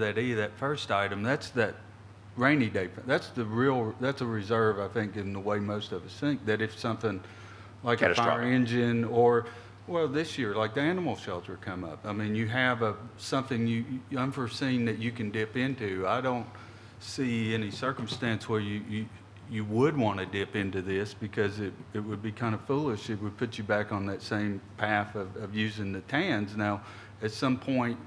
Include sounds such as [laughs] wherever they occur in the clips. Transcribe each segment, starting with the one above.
that E, that first item, that's that rainy day, fund. that's the real, that's a reserve, I think, in the way most of us think, that if something like a fire Catastrophic. engine or, well, this year, like the animal shelter come up, I mean, you have a, something you, you- unforeseen that you can dip into. I don't see any circumstance where you, you, you would want to dip into this because it, it would be kind of foolish. It would put you back on that same path of, of using the TANs. Now, at some point,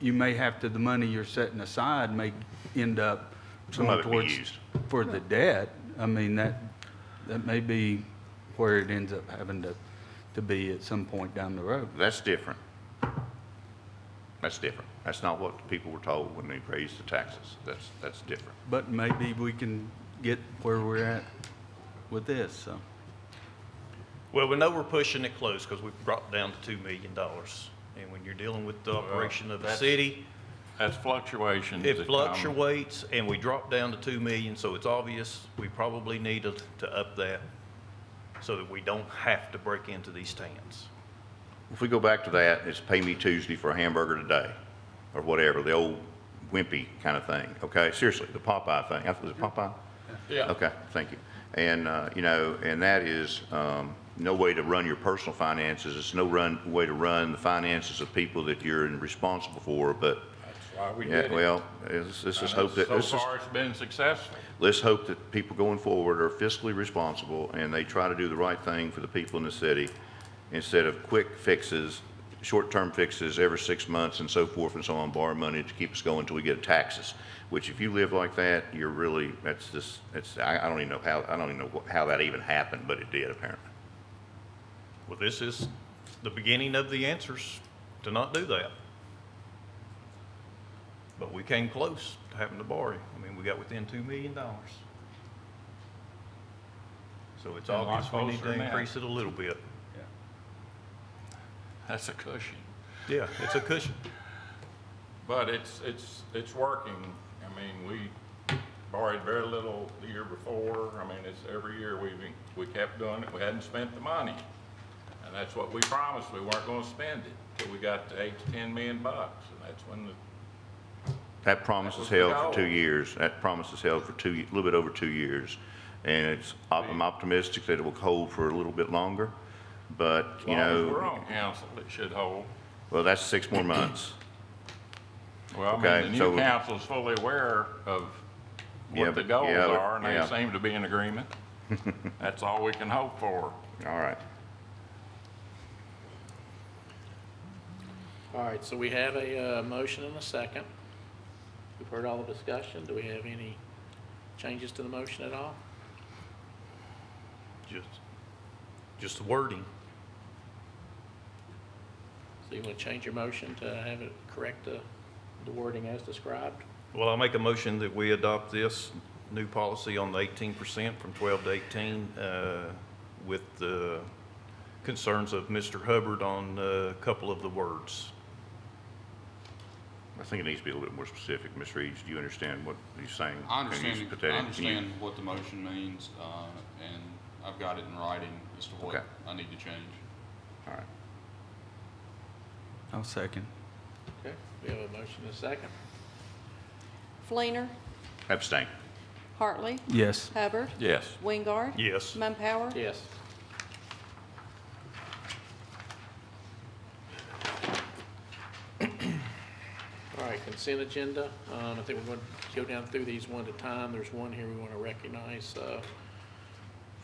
you may have to, the money you're setting aside may end up Some going of it be towards, used. for the debt. I mean, that, that may be where it ends up having to, to be at some point down the road. That's different. That's different. That's not what the people were told when they raised the taxes. That's, that's different. But maybe we can get where we're at with this, so. Well, we know we're pushing it close because we've brought down to two million dollars. And when you're dealing with the operation of the that's- city, That's fluctuations. it that come- fluctuates and we drop down to two million, so it's obvious we probably need to, to up that so that we don't have to break into these stands. If we go back to that, it's pay me Tuesday for a hamburger today, or whatever, the old wimpy kind of thing, okay? Seriously, the Popeye thing. I- Was it Popeye? Yeah. Okay, thank you. And, uh, you know, and that is um, no way to run your personal finances. It's no run, way to run the finances of people that you're responsible for, but, That's why we did yeah, it. well, let's let's just And hope that, So let's just far, it's been successful. let's hope that people going forward are fiscally responsible and they try to do the right thing for the people in the city instead of quick fixes, short-term fixes every six months and so forth and so on, borrow money to keep us going until we get taxes. Which if you live like that, you're really, that's just, it's, I, I don't even know how, I don't even know wh- how that even happened, but it did apparently. Well, this is the beginning of the answers to not do that. But we came close to having to borrow. I mean, we got within two million dollars. So it's And a lot obvious we need closer to than that. increase it a little bit. That's a cushion. Yeah, it's a cushion. But it's, it's, it's working. I mean, we borrowed very little the year before. I mean, it's every year we, we kept doing it. We hadn't spent the money. And that's what we promised. We weren't gonna spend it till we got to eight to 10 million bucks. And that's when the That promise is held for two years. That promise is held for two, a little bit over two years. And it's, op- I'm optimistic that it will hold for a little bit longer, but, as you long as know. we're on council, it should hold. Well, that's six more months. Well, I Okay, mean, the so- new council's fully aware of Yeah, what the but- goals yeah, but- are, and yeah. they seem to be [laughs] in agreement. That's all we can hope for. All right. All right, so we have a uh, motion and a second. We've heard all the discussion. Do we have any changes to the motion at all? Just, just the wording. So you want to change your motion to have it correct the the wording as described? Well, I make a motion that we adopt this new policy on the eighteen percent from twelve to eighteen, uh, with the concerns of Mr. Hubbard on uh, a couple of the words. I think it needs to be a little bit more specific. Ms. Reeves, do you understand what he's saying? I Can you understand, put I that in? Can you- understand what the motion means, uh, and I've got it in writing as to what Okay. I need to change. All right. I'll second. Okay, we have a motion and a second. Fleener, Abstain. Hartley, Yes. Hubbard, Yes. Wingard. Yes. Mumpower. Yes. All right, consent agenda. Um, I think we're going to go down through these one at a time. There's one here we want to recognize, uh,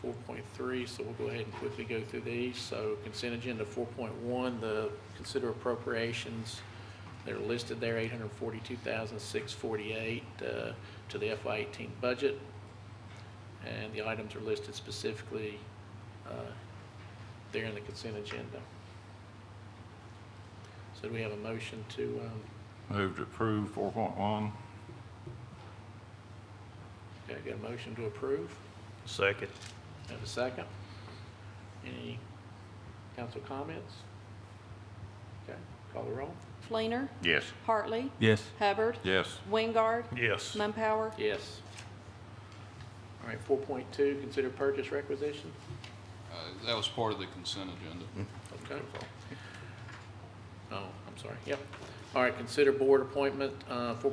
4.3, so we'll go ahead and quickly go through these. So consent agenda 4.1, the consider appropriations. They're listed there, 842,648 uh, to the FY '18 budget. And the items are listed specifically uh, there in the consent agenda. So do we have a motion to, um, Move to approve four point one. okay, got a motion to approve? Second. Have a second? Any council comments? Okay, call the roll. Fleener, Yes. Hartley, Yes. Hubbard, Yes. Wingard, Yes. Mumpower. Yes. All right, 4.2, consider purchase requisition. Uh, That was part of the consent agenda. Okay. Oh, I'm sorry, yep. All right, consider board appointment, uh, four